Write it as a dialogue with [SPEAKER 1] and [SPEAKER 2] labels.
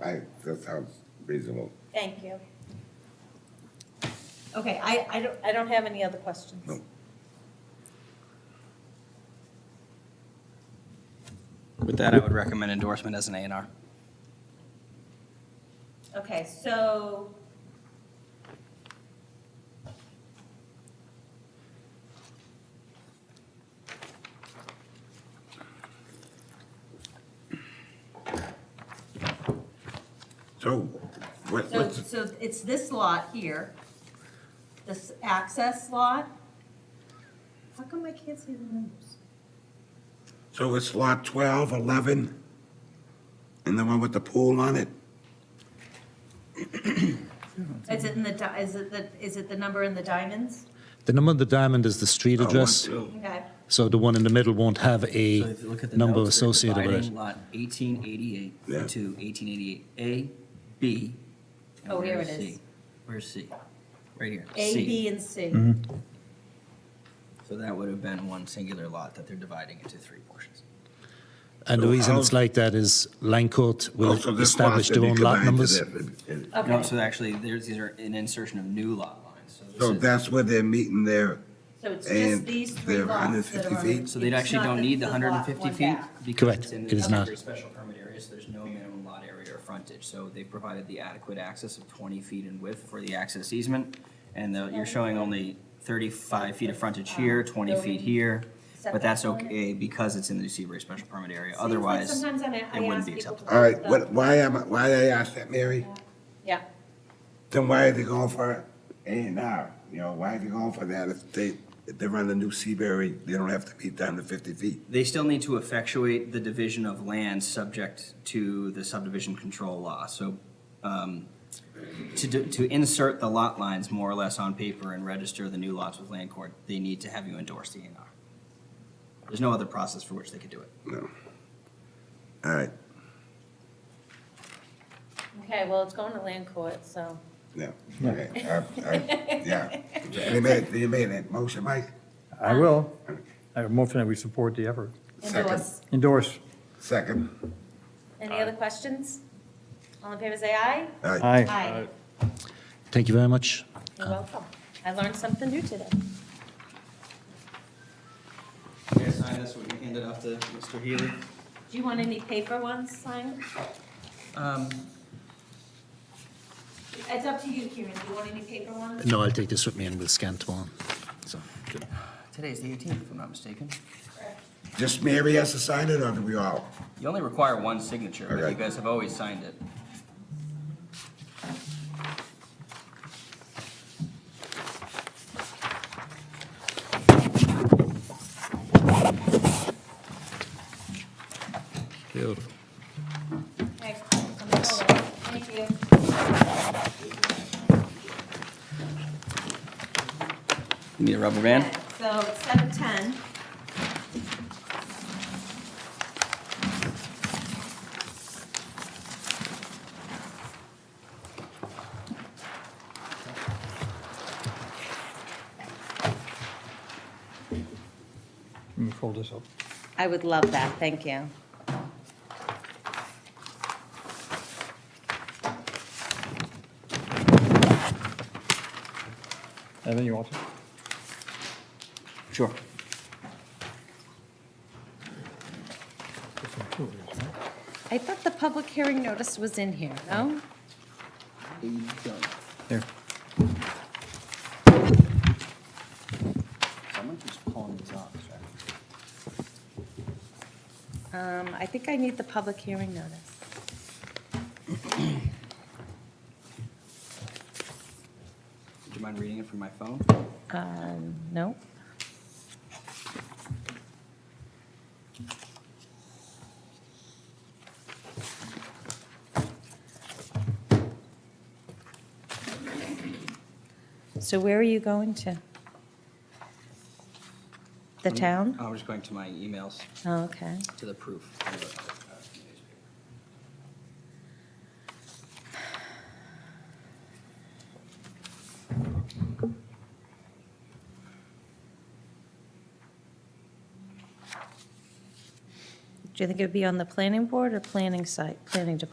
[SPEAKER 1] that sounds reasonable.
[SPEAKER 2] Thank you.
[SPEAKER 3] Okay, I, I don't,
[SPEAKER 2] I don't have any other questions.
[SPEAKER 1] No.
[SPEAKER 4] With that, I would recommend endorsement as an A and R.
[SPEAKER 3] okay, so.
[SPEAKER 1] So, what,
[SPEAKER 3] So,
[SPEAKER 1] what's,
[SPEAKER 3] so it's this lot here, this access lot. How come I can't see the numbers?
[SPEAKER 1] so it's lot 12, 11, and the one with the pool on it?
[SPEAKER 3] Is it in the, di- is it the, is it the number in the diamonds?
[SPEAKER 5] The number of the diamond is the street
[SPEAKER 1] Oh, one,
[SPEAKER 5] address,
[SPEAKER 1] two.
[SPEAKER 3] Okay,
[SPEAKER 5] so the one in the middle won't have
[SPEAKER 4] So
[SPEAKER 5] a
[SPEAKER 4] if you look at the
[SPEAKER 5] number
[SPEAKER 4] notes, they're
[SPEAKER 5] associated with
[SPEAKER 4] dividing
[SPEAKER 5] it.
[SPEAKER 4] Lot eighteen eighty-eight
[SPEAKER 1] Yeah.
[SPEAKER 4] into eighteen eighty-eight A, B. and
[SPEAKER 3] Oh, here
[SPEAKER 4] where's
[SPEAKER 3] it is.
[SPEAKER 4] C? Where's C? Right here.
[SPEAKER 3] A,
[SPEAKER 4] C.
[SPEAKER 3] B, and C.
[SPEAKER 1] Mm-hmm.
[SPEAKER 4] So that would have been one singular lot that they're dividing into three portions.
[SPEAKER 5] And the
[SPEAKER 1] So
[SPEAKER 5] reason
[SPEAKER 1] how-
[SPEAKER 5] it's like that is Langcourt
[SPEAKER 1] Oh,
[SPEAKER 5] will
[SPEAKER 1] so this
[SPEAKER 5] establish
[SPEAKER 1] lot
[SPEAKER 5] their
[SPEAKER 1] that
[SPEAKER 5] own
[SPEAKER 1] you
[SPEAKER 5] lot
[SPEAKER 1] combined
[SPEAKER 5] numbers.
[SPEAKER 1] to that-
[SPEAKER 3] Okay.
[SPEAKER 4] No, so actually, there's, these are an insertion of new lot lines, so
[SPEAKER 1] So
[SPEAKER 4] this is.
[SPEAKER 1] that's where they're meeting there.
[SPEAKER 3] So it's just
[SPEAKER 1] And
[SPEAKER 3] these three
[SPEAKER 1] they're
[SPEAKER 3] lots that
[SPEAKER 1] 150
[SPEAKER 3] are. on-
[SPEAKER 1] feet?
[SPEAKER 4] So they
[SPEAKER 3] it's
[SPEAKER 4] actually
[SPEAKER 3] not
[SPEAKER 4] don't need the
[SPEAKER 3] lot
[SPEAKER 4] hundred and fifty
[SPEAKER 3] one
[SPEAKER 4] feet?
[SPEAKER 3] back.
[SPEAKER 4] because
[SPEAKER 5] Correct.
[SPEAKER 4] it's in
[SPEAKER 5] It is
[SPEAKER 4] the
[SPEAKER 5] not.
[SPEAKER 4] temporary Special permit area, so there's no minimum lot area or frontage, so they provided the adequate access of twenty feet in width for the access easement. And the- you're showing only thirty-five feet of frontage here, twenty feet here, but that's okay because it's in the Seabury Special Permit area,
[SPEAKER 3] Seems like
[SPEAKER 4] otherwise,
[SPEAKER 3] Sometimes I'm,
[SPEAKER 4] it
[SPEAKER 3] I
[SPEAKER 4] wouldn't
[SPEAKER 3] ask
[SPEAKER 4] be
[SPEAKER 3] people to.
[SPEAKER 4] acceptable.
[SPEAKER 1] All right,
[SPEAKER 3] look
[SPEAKER 1] what,
[SPEAKER 3] up.
[SPEAKER 1] why am, I- why they asked that, Mary?
[SPEAKER 2] Yeah,
[SPEAKER 1] Then why are they going for A and R? You know, why are they going for that if they, if they're on the new Seabury, they don't have to meet down to 50 feet?
[SPEAKER 4] they still need to effectuate the division of land subject to the subdivision control law. So um, to, do- to insert the lot lines more or less on paper and register the new lots with land court, they need to have you endorse the A and R. There's no other process for which they could do it.
[SPEAKER 1] No. All right,
[SPEAKER 2] okay, well, it's going to land court, so,
[SPEAKER 1] no. Okay, I- I- Yeah. They made, they made that motion, Mike?
[SPEAKER 6] I will. I motion that we support the effort.
[SPEAKER 1] Second.
[SPEAKER 3] Endorse.
[SPEAKER 6] Endorse.
[SPEAKER 1] Second.
[SPEAKER 2] any other questions? All in favor, say aye.
[SPEAKER 1] All right.
[SPEAKER 6] Aye.
[SPEAKER 3] Aye.
[SPEAKER 5] Thank you very much.
[SPEAKER 2] You're welcome. I learned something new today.
[SPEAKER 4] Okay, sign this, we can hand it off to Mr. Healy.
[SPEAKER 2] Do you want any paper ones signed?
[SPEAKER 4] Um,
[SPEAKER 3] It's up to you, Kieran, do you want any paper ones?
[SPEAKER 5] No, I'll take this with me and we'll scan tomorrow. So,
[SPEAKER 4] Today's the 18th, if I'm not mistaken.
[SPEAKER 1] Just Mary has to sign it, or do we all?
[SPEAKER 4] You only require one signature, but you
[SPEAKER 1] Okay.
[SPEAKER 4] guys have always signed it.
[SPEAKER 5] Beautiful.
[SPEAKER 3] Okay, I'm gonna go away. Thank you.
[SPEAKER 4] You need a rubber band?
[SPEAKER 3] Okay, So it's seven ten.
[SPEAKER 6] Let me fold this up.
[SPEAKER 2] I would love that, thank you.
[SPEAKER 6] And then you want to?
[SPEAKER 4] Sure.
[SPEAKER 2] I thought the public hearing notice was in here, no?
[SPEAKER 6] There.
[SPEAKER 4] Someone keeps pulling these off.
[SPEAKER 2] Um, I think I need the public hearing notice.
[SPEAKER 4] Would you mind reading it from my phone?
[SPEAKER 2] Um, no. So where are you going to? The
[SPEAKER 4] I'm-
[SPEAKER 2] town?
[SPEAKER 4] I'm just going to my emails,
[SPEAKER 2] Oh, okay.
[SPEAKER 4] to the proof.
[SPEAKER 2] Do you think it'd be on the planning board or planning site, planning department?